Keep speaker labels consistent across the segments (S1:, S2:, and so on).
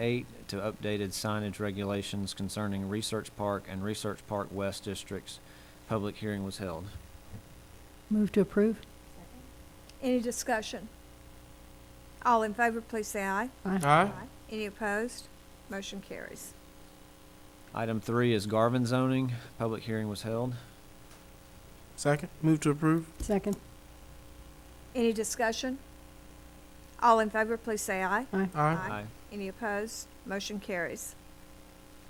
S1: eight to updated signage regulations concerning Research Park and Research Park West districts. Public hearing was held.
S2: Move to approve?
S3: Any discussion? All in favor, please say aye.
S4: Aye.
S3: Any opposed? Motion carries.
S1: Item three is Garvin zoning. Public hearing was held.
S4: Second. Move to approve.
S2: Second?
S3: Any discussion? All in favor, please say aye.
S4: Aye.
S3: Any opposed? Motion carries.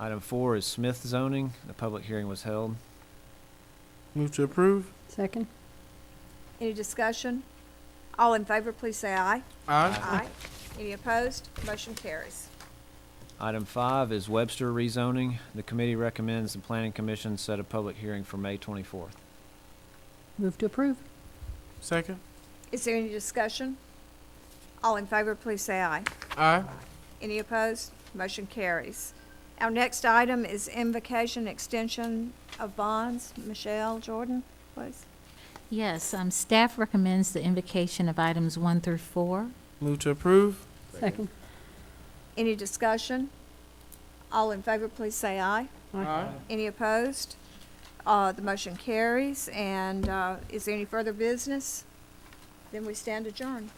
S1: Item four is Smith zoning. The public hearing was held.
S4: Move to approve.
S2: Second?
S3: Any discussion? All in favor, please say aye.
S4: Aye.
S3: Any opposed? Motion carries.
S1: Item five is Webster rezoning. The committee recommends the planning commission set a public hearing for May twenty-fourth.
S2: Move to approve?
S4: Second.
S3: Is there any discussion? All in favor, please say aye.
S4: Aye.
S3: Any opposed? Motion carries. Our next item is invocation extension of bonds. Michelle Jordan, please.
S5: Yes, um, staff recommends the invocation of items one through four.
S4: Move to approve.
S2: Second?
S3: Any discussion? All in favor, please say aye. Any opposed? Uh, the motion carries, and, uh, is there any further business? Then we stand adjourned.